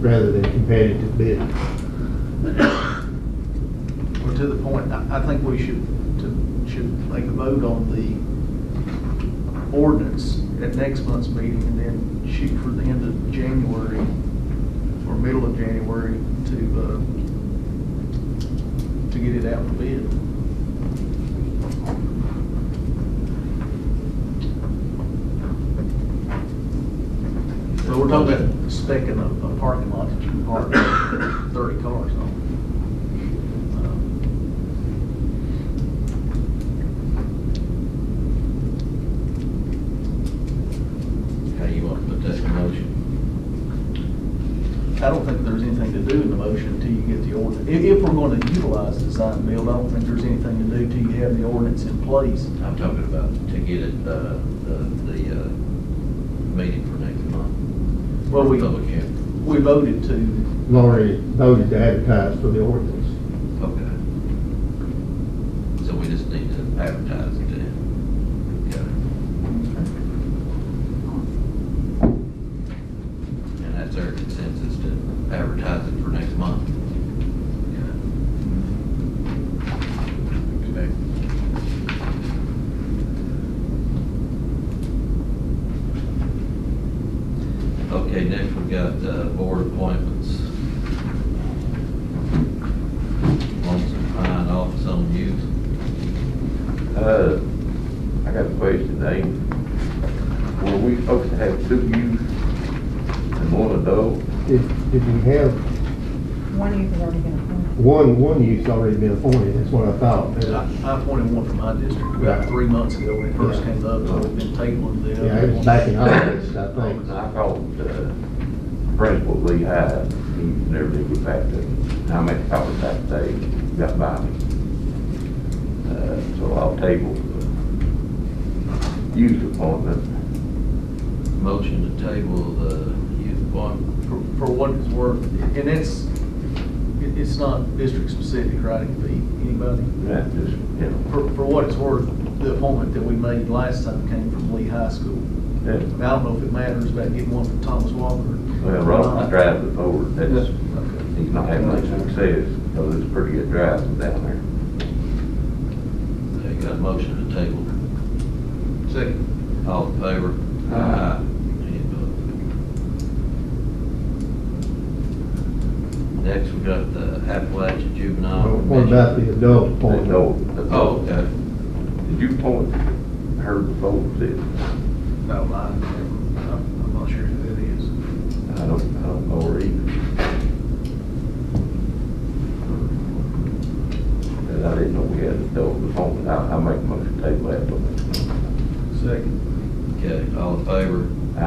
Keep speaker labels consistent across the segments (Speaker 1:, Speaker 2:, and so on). Speaker 1: rather than competitive bid.
Speaker 2: Well, to the point, I, I think we should, to, should make a vote on the ordinance at next month's meeting and then shoot for the end of January or middle of January to, uh, to get it out for bid. But we're talking about specking a, a parking lot that you can park thirty cars on.
Speaker 3: How you want to put that in motion?
Speaker 2: I don't think there's anything to do in the motion until you get the ordinance. If, if we're going to utilize design build, I don't think there's anything to do till you have the ordinance in place.
Speaker 3: I'm talking about to get it, uh, the, the, uh, meeting for next month.
Speaker 2: Well, we,
Speaker 3: Public hearing.
Speaker 2: we voted to,
Speaker 1: Lori voted to advertise for the ordinance.
Speaker 3: Okay. So we just need to advertise it then. Okay. And that's our consensus to advertise it for next month. Okay. Okay, next we've got uh, board appointments. Lonesome Pine Office on Youth.
Speaker 4: Uh, I got a question, Nate. Were we supposed to have two youth and one adult?
Speaker 1: Did, did we have,
Speaker 5: One youth has already been appointed.
Speaker 1: one, one youth's already been appointed, that's what I thought. uh,
Speaker 2: I I appointed one from my district
Speaker 1: Right.
Speaker 2: about three months ago when it first
Speaker 1: Yeah.
Speaker 2: came up, so we've been tabling the
Speaker 1: Yeah, it
Speaker 2: other
Speaker 1: was back in
Speaker 2: one.
Speaker 1: August, I think.
Speaker 4: I called, uh, Principal Lee Hyde, he never did get back to me. I made calls that day, got by me. Uh, so I'll table the youth appointment.
Speaker 3: Motion to table the youth appointment.
Speaker 2: For, for what it's worth, and it's, it- it's not district specific, right? It could be anybody.
Speaker 4: That just, you know,
Speaker 2: For, for what it's worth, the appointment that we made last time came from Lee High School.
Speaker 4: that-
Speaker 2: I don't know if it matters about getting one from Thomas Walker. Uh,
Speaker 4: Well, Ron drives it forward, that's,
Speaker 2: Okay.
Speaker 4: he's not having much success, because it's pretty good driving down there.
Speaker 3: Okay, got a motion to table.
Speaker 2: Second.
Speaker 3: All in favor?
Speaker 4: Aye.
Speaker 3: Any opposed? Next, we got the Appalachian Juvenile.
Speaker 1: What about the adult
Speaker 4: They know
Speaker 1: appointment?
Speaker 4: the-
Speaker 3: Oh, okay.
Speaker 4: Did you point her before, did,
Speaker 2: No, I, I'm I'm not sure who that is.
Speaker 4: I don't, I don't know her either. And I didn't know we had a double phone, I, I make most table that one.
Speaker 2: Second.
Speaker 3: Okay, all in favor?
Speaker 4: I,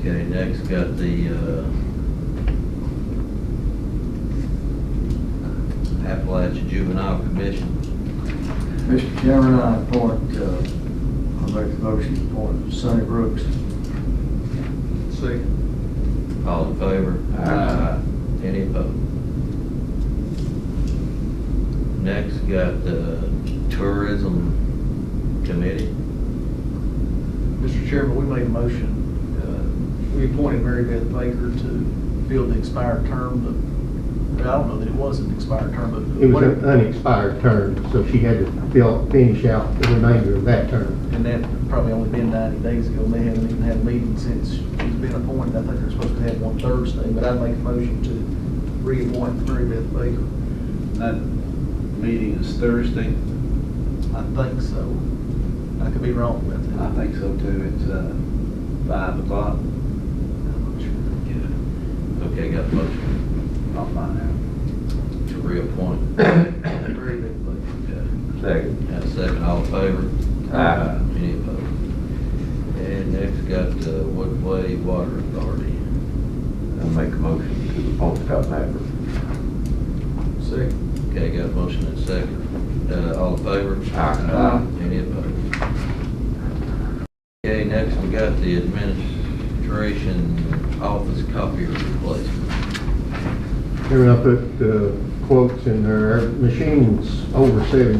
Speaker 3: Okay, next got the, uh, Appalachian Juvenile Commission.
Speaker 6: Mr. Chairman, I appoint, uh, I make the motion to appoint Sonny Brooks.
Speaker 2: Second.
Speaker 3: All in favor?
Speaker 4: Aye.
Speaker 3: Any opposed? Next, got the Tourism Committee.
Speaker 2: Mr. Chairman, we made a motion, uh, we appointed Mary Beth Baker to fill the expired term, but I don't know that it was an expired term, but.
Speaker 1: It was an unexpired term, so she had to fill, finish out the remainder of that term.
Speaker 2: And that probably only been ninety days ago, and they haven't even had a meeting since she's been appointed. I think they're supposed to have one Thursday, but I'd make a motion to reappoint Mary Beth Baker.
Speaker 7: That meeting is Thursday.
Speaker 2: I think so. I could be wrong about that.
Speaker 7: I think so too. It's uh, five o'clock.
Speaker 2: I'm not sure.
Speaker 3: Yeah. Okay, got a motion
Speaker 7: I'll find out.
Speaker 3: to reappoint.
Speaker 2: Mary Beth Baker.
Speaker 3: Okay.
Speaker 4: second.
Speaker 3: Got a second, all in favor? Uh,
Speaker 4: Aye.
Speaker 3: Any opposed? And next, got the Woodway Water Authority.
Speaker 4: I make a motion to appoint Scott Maverick.
Speaker 2: Second.
Speaker 3: Okay, got a motion and a second. Uh, all in favor?
Speaker 4: Aye.
Speaker 3: Any opposed? Okay, next we got the administration office copier replacement.
Speaker 1: Here I put uh, quotes in there, Our machine's over seven